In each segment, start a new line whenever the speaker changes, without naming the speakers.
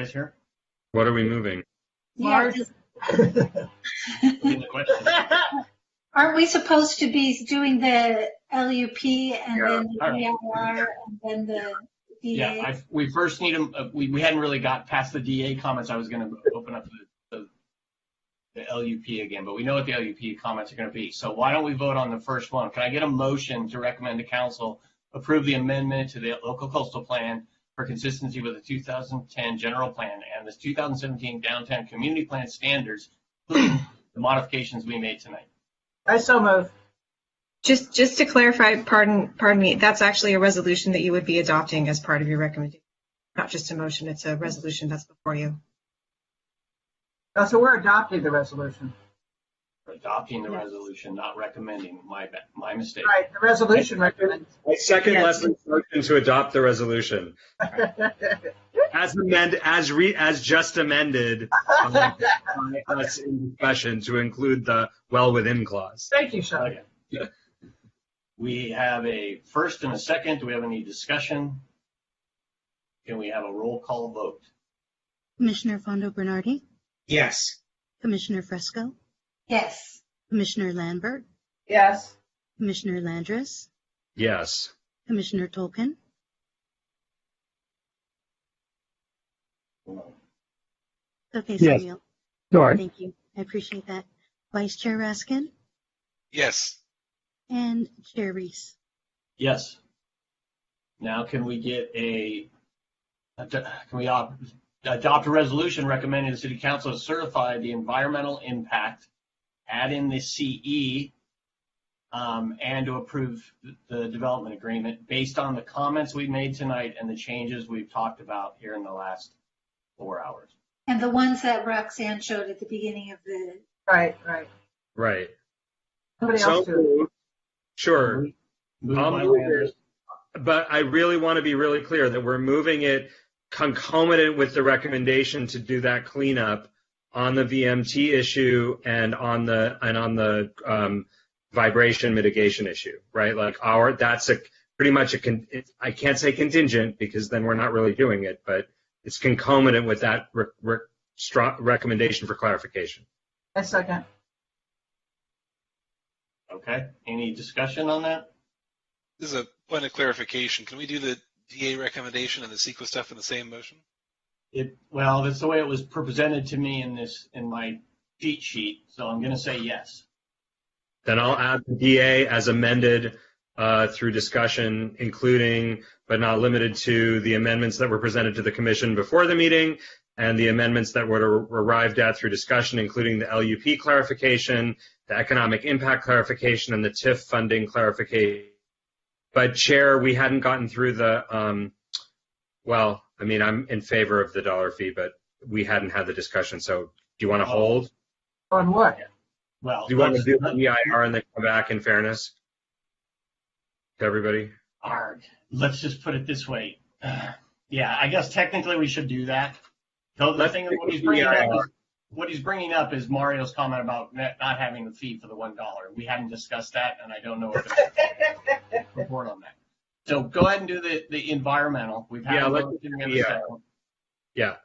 guys hear?
What are we moving?
Yeah,
Mars.
Repeat the question.
aren't we supposed to be doing the LUP and then the
Yeah.
DIR and then the
Yeah,
DA?
I, we first need them, we, we hadn't really got past the DA comments. I was gonna open up the, the, the LUP again, but we know what the LUP comments are gonna be. So why don't we vote on the first one? Can I get a motion to recommend the council approve the amendment to the local coastal plan for consistency with the 2010 general plan and the 2017 downtown community plan standards, including the modifications we made tonight?
I so move.
Just, just to clarify, pardon, pardon me, that's actually a resolution that you would be adopting as part of your recommendation. Not just a motion, it's a resolution that's before you.
Oh, so we're adopting the resolution.
Adopting the
Yes.
resolution, not recommending, my, ba- my mistake.
Right, the resolution recommends.
I second
Yes.
Leslie's motion to adopt the resolution as amend as re as just amended um, by us in discussion to include the well within clause.
Thank you, Sean.
Okay. We have a first and a second. Do we have any discussion? Can we have a roll call vote?
Commissioner Fondo Bernardi,
Yes.
Commissioner Fresco,
Yes,
Commissioner Lambert,
Yes.
Commissioner Landris,
Yes.
Commissioner Tolkien, okay,
Yes.
Samuel,
Sorry.
thank you, I appreciate that. Vice Chair Raskin
Yes.
and Chair Reese.
Yes. Now can we get a, can we op- adopt a resolution recommending the city council certify the environmental impact, add in the CE, um, and to approve the development agreement based on the comments we made tonight and the changes we've talked about here in the last four hours?
and the ones that Roxanne showed at the beginning of the,
Right, right.
Right.
Somebody else do it.
moved. Sure.
Move
I'll
by
move
Landers.
But I really want to be really clear that we're moving it concomitant with the recommendation to do that cleanup on the VMT issue and on the and on the um, vibration mitigation issue, right? Like our that's a pretty much a con, it's, I can't say contingent because then we're not really doing it, but it's concomitant with that re, re, stra, recommendation for clarification.
I second.
Okay, any discussion on that?
This is a point of clarification. Can we do the DA recommendation and the CEQA stuff in the same motion?
It, well, that's the way it was presented to me in this, in my cheat sheet, so I'm gonna say yes.
Then I'll add the DA as amended uh, through discussion, including but not limited to the amendments that were presented to the commission before the meeting and the amendments that were arrived at through discussion, including the LUP clarification, the economic impact clarification, and the TIF funding clarification. But Chair, we hadn't gotten through the, um, well, I mean, I'm in favor of the dollar fee, but we hadn't had the discussion. So do you want to hold?
On what?
Well,
Do you want to
let's-
do
let's-
the EIR E and then come back in fairness? To everybody?
arg, let's just put it this way. Yeah, I guess technically we should do that. Though the
Let's
thing,
do
what he's
the
bringing up,
EIR.
is- what he's bringing up is Mario's comment about not not having the fee for the one dollar. We hadn't discussed that, and I don't know if there's a report on that. So go ahead and do the, the environmental. We've had. a
Yeah, let's
motion
do
and a
the EIR.
second.
Yeah.
All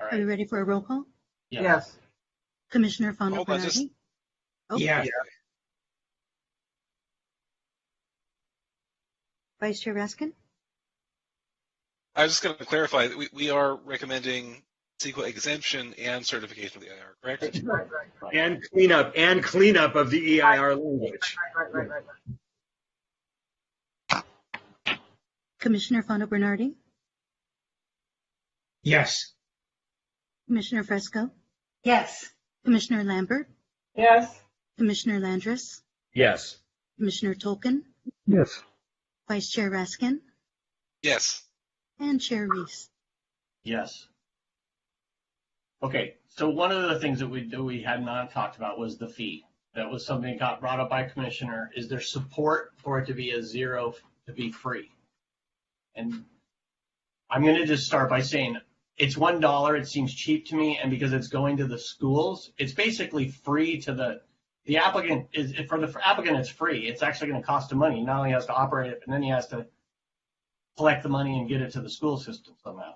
Are we
right,
ready for a roll call?
yeah,
Yes.
Commissioner Fondo
Hold on, just-
Bernardi? Oh,
Yeah.
Vice Chair Raskin,
I was just going to clarify that we, we are recommending CEQA exemption and certification of the IR, correct?
Right, right, right,
right.
And cleanup, and cleanup of the EIR language.
right, right, right. right.
Commissioner Fondo Bernardi,
Yes.
Commissioner Fresco,
yes,
Commissioner Lambert,
Yes.
Commissioner Landris,
Yes.
Commissioner Tolkien,
Yes.
Vice Chair Raskin,
Yes.
and Chair Reese.
Yes. Okay, so one of the things that we, that we had not talked about was the fee. That was something that got brought up by Commissioner. Is there support for it to be a zero, to be free? And I'm gonna just start by saying, it's one dollar, it seems cheap to me, and because it's going to the schools, it's basically free to the, the applicant is, for the applicant, it's free. It's actually gonna cost him money. Not only has to operate it, but then he has to collect the money and get it to the school system somehow.